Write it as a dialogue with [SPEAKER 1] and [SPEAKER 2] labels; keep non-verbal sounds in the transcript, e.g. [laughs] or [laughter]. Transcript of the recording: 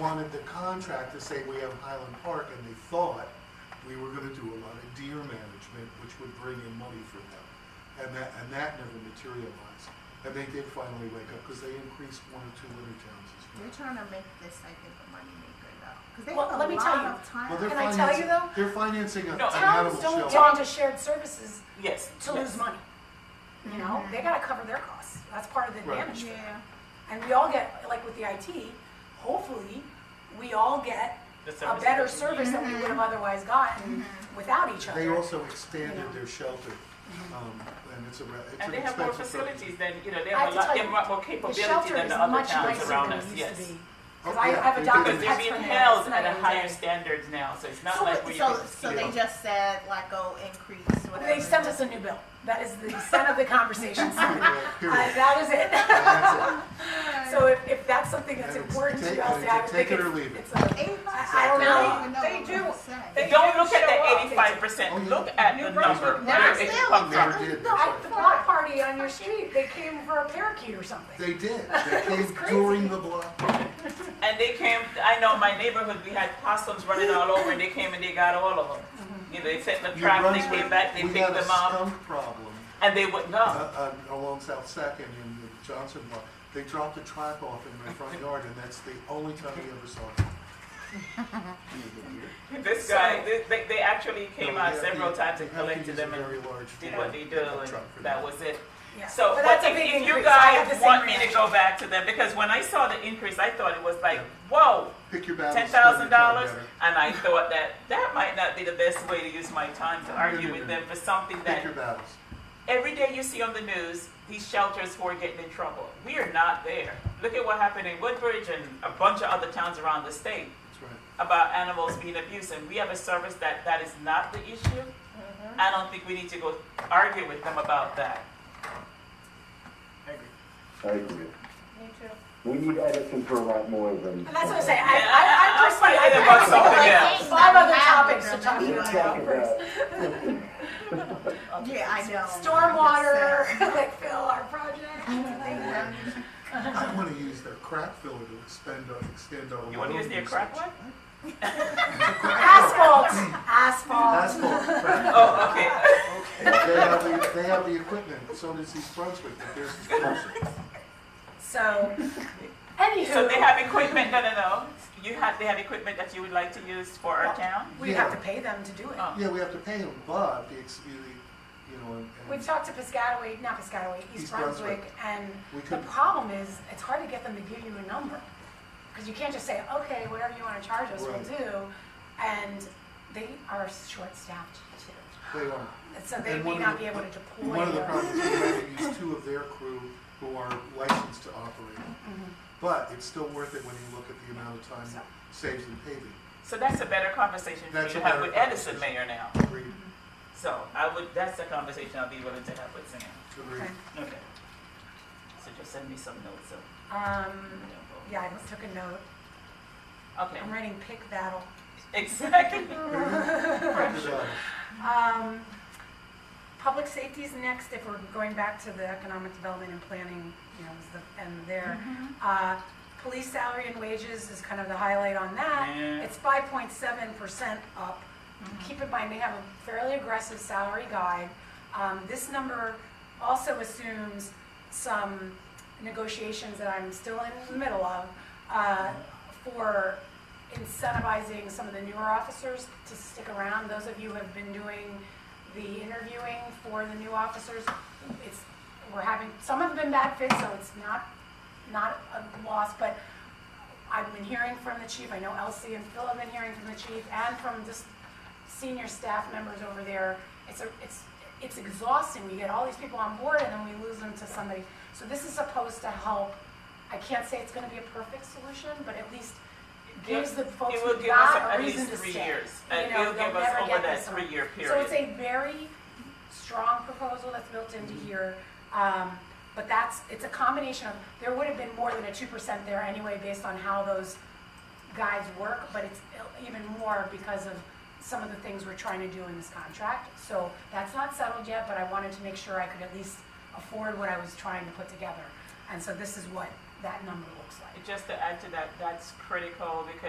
[SPEAKER 1] wanted the contract to say we have Highland Park, and they thought we were gonna do a lot of deer management, which would bring in money for them. And that, and that never materialized. And they did finally wake up, because they increased one or two litter towns as
[SPEAKER 2] They're
[SPEAKER 1] well.
[SPEAKER 2] trying to make this, I think, a moneymaker though, because they
[SPEAKER 3] Well,
[SPEAKER 2] have a
[SPEAKER 3] let me tell
[SPEAKER 2] lot
[SPEAKER 3] you.
[SPEAKER 2] of
[SPEAKER 1] Well, they're
[SPEAKER 2] time.
[SPEAKER 3] Can I tell you
[SPEAKER 1] financing-
[SPEAKER 3] though?
[SPEAKER 1] They're financing a- an
[SPEAKER 4] No.
[SPEAKER 1] animal
[SPEAKER 3] Towns don't
[SPEAKER 1] shelter.
[SPEAKER 3] get into shared services
[SPEAKER 4] Yes.
[SPEAKER 3] to
[SPEAKER 4] yes.
[SPEAKER 3] lose money. You know,
[SPEAKER 2] Mhm.
[SPEAKER 3] they gotta cover their costs. That's part of the
[SPEAKER 1] Mm-hmm. Right.
[SPEAKER 3] advantage. for them.
[SPEAKER 2] Yeah,
[SPEAKER 3] And we all get, like with the IT, hopefully, we all get
[SPEAKER 4] The
[SPEAKER 3] a
[SPEAKER 4] service
[SPEAKER 3] better
[SPEAKER 4] that we
[SPEAKER 3] service
[SPEAKER 4] need.
[SPEAKER 3] than we would have otherwise gotten without each
[SPEAKER 1] Mm-hmm. They
[SPEAKER 3] other.
[SPEAKER 1] also expanded
[SPEAKER 3] Yeah. Mm-hmm.
[SPEAKER 1] their shelter, um, and it's a, re- it's
[SPEAKER 4] And
[SPEAKER 1] an
[SPEAKER 4] they have more
[SPEAKER 1] expensive. program.
[SPEAKER 4] facilities than, you know, they
[SPEAKER 3] I
[SPEAKER 4] have
[SPEAKER 3] have
[SPEAKER 4] a
[SPEAKER 3] to
[SPEAKER 4] lot,
[SPEAKER 3] tell
[SPEAKER 4] they have
[SPEAKER 3] you,
[SPEAKER 4] more more
[SPEAKER 3] The
[SPEAKER 4] capability
[SPEAKER 3] shelter
[SPEAKER 4] than
[SPEAKER 3] is
[SPEAKER 4] the other
[SPEAKER 3] much
[SPEAKER 4] towns
[SPEAKER 3] nicer
[SPEAKER 4] around
[SPEAKER 3] than
[SPEAKER 4] us,
[SPEAKER 3] it used to
[SPEAKER 4] yes.
[SPEAKER 3] be.
[SPEAKER 1] Oh,
[SPEAKER 3] Cause I
[SPEAKER 1] yeah,
[SPEAKER 3] have
[SPEAKER 1] they
[SPEAKER 3] a
[SPEAKER 1] did
[SPEAKER 3] doctor
[SPEAKER 1] it.
[SPEAKER 4] Because they're
[SPEAKER 3] that's
[SPEAKER 4] being
[SPEAKER 3] from
[SPEAKER 4] held
[SPEAKER 3] there.
[SPEAKER 4] at a higher standards now, so it's not
[SPEAKER 3] So
[SPEAKER 4] like
[SPEAKER 3] what-
[SPEAKER 4] we
[SPEAKER 2] so, so
[SPEAKER 1] you
[SPEAKER 2] they
[SPEAKER 1] know.
[SPEAKER 2] just said like, oh, increase whatever.
[SPEAKER 3] They sent us a new bill. That is the extent
[SPEAKER 1] [laughs]
[SPEAKER 3] of the conversation. Uh, [laughs]
[SPEAKER 1] Period, period.
[SPEAKER 3] That is it. [laughs]
[SPEAKER 1] And that's
[SPEAKER 3] So if, if that's something that's
[SPEAKER 1] And it's
[SPEAKER 3] important to
[SPEAKER 1] take-
[SPEAKER 3] you, I'll
[SPEAKER 1] and
[SPEAKER 3] say
[SPEAKER 1] it's a
[SPEAKER 3] I would think
[SPEAKER 1] take it or
[SPEAKER 3] it's-
[SPEAKER 1] leave it.
[SPEAKER 3] it's a-
[SPEAKER 2] They
[SPEAKER 3] I-
[SPEAKER 2] must-
[SPEAKER 3] I don't
[SPEAKER 2] I
[SPEAKER 3] know.
[SPEAKER 2] don't even
[SPEAKER 5] They
[SPEAKER 2] know
[SPEAKER 5] do.
[SPEAKER 2] what to say.
[SPEAKER 5] They-
[SPEAKER 4] Don't look at
[SPEAKER 5] show up.
[SPEAKER 4] the eighty-five
[SPEAKER 1] Oh,
[SPEAKER 4] percent,
[SPEAKER 1] yeah.
[SPEAKER 4] look at
[SPEAKER 5] New
[SPEAKER 4] the
[SPEAKER 5] Brunswick
[SPEAKER 4] number,
[SPEAKER 2] Now,
[SPEAKER 4] where
[SPEAKER 2] still,
[SPEAKER 4] it
[SPEAKER 2] we
[SPEAKER 4] comes
[SPEAKER 1] never
[SPEAKER 4] from.
[SPEAKER 2] got-
[SPEAKER 1] did.
[SPEAKER 3] No, at the block party on your street, they came for a parakeet or something.
[SPEAKER 1] it. They did, they came
[SPEAKER 3] crazy.
[SPEAKER 1] during the block.
[SPEAKER 4] And they came, I know my neighborhood, we had possums running all over, and they came and they got all of them. You know, they set the
[SPEAKER 1] New
[SPEAKER 4] trap, they
[SPEAKER 1] Brunswick,
[SPEAKER 4] came back, they
[SPEAKER 1] we had
[SPEAKER 4] picked
[SPEAKER 1] a
[SPEAKER 4] them up,
[SPEAKER 1] skunk problem
[SPEAKER 4] and they wouldn't
[SPEAKER 1] uh,
[SPEAKER 4] go.
[SPEAKER 1] uh, along South Second in the Johnson Block. They dropped a trap off in my front yard, and that's the only time we ever saw them.
[SPEAKER 4] This guy, they- they, they actually [laughs] came
[SPEAKER 1] No,
[SPEAKER 4] out
[SPEAKER 1] we have
[SPEAKER 4] several
[SPEAKER 1] to-
[SPEAKER 4] times
[SPEAKER 1] we
[SPEAKER 4] and
[SPEAKER 1] have to
[SPEAKER 4] collected
[SPEAKER 1] use
[SPEAKER 4] them
[SPEAKER 1] a
[SPEAKER 4] and
[SPEAKER 1] very large
[SPEAKER 4] did
[SPEAKER 1] truck-
[SPEAKER 4] what they do,
[SPEAKER 1] pickup
[SPEAKER 4] and
[SPEAKER 1] truck for
[SPEAKER 4] that was it.
[SPEAKER 3] Yeah.
[SPEAKER 4] So,
[SPEAKER 3] But
[SPEAKER 4] but
[SPEAKER 3] that's a
[SPEAKER 4] if,
[SPEAKER 3] big
[SPEAKER 4] if you
[SPEAKER 3] increase. I had
[SPEAKER 4] guys
[SPEAKER 3] the same
[SPEAKER 4] want me to
[SPEAKER 3] reaction.
[SPEAKER 4] go back to them, because when I saw the increase, I thought it was like, whoa,
[SPEAKER 1] Pick your battles.
[SPEAKER 4] ten
[SPEAKER 1] spend your
[SPEAKER 4] thousand
[SPEAKER 1] time
[SPEAKER 4] dollars,
[SPEAKER 1] better.
[SPEAKER 4] and I thought that that might not be the best way to use my time to
[SPEAKER 1] No,
[SPEAKER 4] argue
[SPEAKER 1] no,
[SPEAKER 4] with
[SPEAKER 1] no.
[SPEAKER 4] them for something
[SPEAKER 1] Pick your
[SPEAKER 4] that
[SPEAKER 1] battles.
[SPEAKER 4] every day you see on the news these shelters who are getting in trouble. We are not there. Look at what happened in Woodbridge and a bunch of other towns around the state
[SPEAKER 1] That's right.
[SPEAKER 4] about animals being abused, and we have a service that that is not the issue.
[SPEAKER 3] Mm-hmm.
[SPEAKER 4] I don't think we need to go argue with them about that.
[SPEAKER 6] I agree.
[SPEAKER 5] Me too.
[SPEAKER 6] We need Edison for a lot more than.
[SPEAKER 3] And that's what I'm saying, I,
[SPEAKER 4] Yeah, I- I-
[SPEAKER 3] I, I
[SPEAKER 4] I'm
[SPEAKER 3] personally, I
[SPEAKER 4] thinking
[SPEAKER 2] else.
[SPEAKER 3] think I have like
[SPEAKER 4] about something
[SPEAKER 3] five other
[SPEAKER 2] Let's
[SPEAKER 3] topics to talk to you
[SPEAKER 6] Let's
[SPEAKER 3] about first.
[SPEAKER 6] talk about,
[SPEAKER 2] Yeah, I know.
[SPEAKER 3] Stormwater, like Phil, our project, [laughs] like,
[SPEAKER 1] I want to use their crack filler to expend our, extend our.
[SPEAKER 4] You want to use their crack one?
[SPEAKER 3] asphalt, asphalt.
[SPEAKER 1] Asphalt crack.
[SPEAKER 4] Oh, okay.
[SPEAKER 1] They have the, they have the equipment, so does East Brunswick, but theirs is closer.
[SPEAKER 3] So,
[SPEAKER 4] [laughs] So they
[SPEAKER 3] anywho,
[SPEAKER 4] have equipment, no, no, no. You have, they have equipment that you would like to use for our town?
[SPEAKER 3] we have to pay them to do it.
[SPEAKER 4] Oh.
[SPEAKER 1] Yeah, we have to pay them, but the, ex- you the- you know, and-
[SPEAKER 3] We've
[SPEAKER 1] and
[SPEAKER 3] talked to Piscataway, not Piscataway,
[SPEAKER 1] East
[SPEAKER 3] East
[SPEAKER 1] Brunswick.
[SPEAKER 3] Brunswick, and
[SPEAKER 1] we
[SPEAKER 3] the
[SPEAKER 1] could,
[SPEAKER 3] problem is, it's hard to get them to give you a number. Because you can't just say, okay, whatever you wanna charge us, we'll
[SPEAKER 1] Right.
[SPEAKER 3] do. And they are short-staffed too.
[SPEAKER 1] they are.
[SPEAKER 3] And So they
[SPEAKER 1] And one
[SPEAKER 3] may
[SPEAKER 1] of
[SPEAKER 3] not
[SPEAKER 1] the-
[SPEAKER 3] be able to deploy.
[SPEAKER 1] One of the
[SPEAKER 3] their-
[SPEAKER 1] problems, we have to use two of their crew who are licensed to operate.
[SPEAKER 3] Mhm.
[SPEAKER 1] But it's still worth it when you look at the amount of time it saves in paving.
[SPEAKER 4] So that's a better conversation for you
[SPEAKER 1] That's
[SPEAKER 4] to
[SPEAKER 1] a
[SPEAKER 4] have
[SPEAKER 1] better
[SPEAKER 4] with Edison
[SPEAKER 1] conversation.
[SPEAKER 4] Mayor now.
[SPEAKER 1] Agreed,
[SPEAKER 4] So I would, that's the conversation I'll be willing to have with Sam.
[SPEAKER 1] agreed.
[SPEAKER 4] Okay. So just send me some notes so. we
[SPEAKER 3] Um,
[SPEAKER 4] don't go.
[SPEAKER 3] yeah, I took a note.
[SPEAKER 4] Okay, [laughs]
[SPEAKER 3] I'm writing pick battle.
[SPEAKER 4] exactly.
[SPEAKER 3] [laughs]
[SPEAKER 1] Crocodile.
[SPEAKER 3] Um, public safety is next, if we're going back to the economic development and planning, you know, is the, and there. Uh, police salary and wages is kind of the highlight on that.
[SPEAKER 4] Yeah.
[SPEAKER 3] It's five point seven percent up. Keep in mind, they have a fairly aggressive salary guide. Um, this number also assumes some negotiations that I'm still in the middle of, uh, for incentivizing some of the newer officers to stick around. Those of you who have been doing the interviewing for the new officers, it's, we're having, some have been bad fits, so it's not, not a loss, but I've been hearing from the chief, I know Elsie and Phil have been hearing from the chief, and from just senior staff members over there. It's, a, it's, it's exhausting, we get all these people on board and then we lose them to somebody. So this is supposed to help, I can't say it's gonna be a perfect solution, but at least it gives the folks
[SPEAKER 4] It will
[SPEAKER 3] who
[SPEAKER 4] give us
[SPEAKER 3] got
[SPEAKER 4] at
[SPEAKER 3] a reason
[SPEAKER 4] least
[SPEAKER 3] to
[SPEAKER 4] three
[SPEAKER 3] stay.
[SPEAKER 4] years.
[SPEAKER 3] You
[SPEAKER 4] And
[SPEAKER 3] know,
[SPEAKER 4] it'll give
[SPEAKER 3] they'll
[SPEAKER 4] us
[SPEAKER 3] never
[SPEAKER 4] over
[SPEAKER 3] get
[SPEAKER 4] that
[SPEAKER 3] this one.
[SPEAKER 4] three-year
[SPEAKER 3] So it's
[SPEAKER 4] period.
[SPEAKER 3] a very strong proposal that's built into here. Um, but that's, it's a combination of, there would have been more than a two percent there anyway, based on how those guides work, but it's even more because of some of the things we're trying to do in this contract. So that's not settled yet, but I wanted to make sure I could at least afford what I was trying to put together. And so this is what that number looks like.
[SPEAKER 4] Just to add to that, that's critical because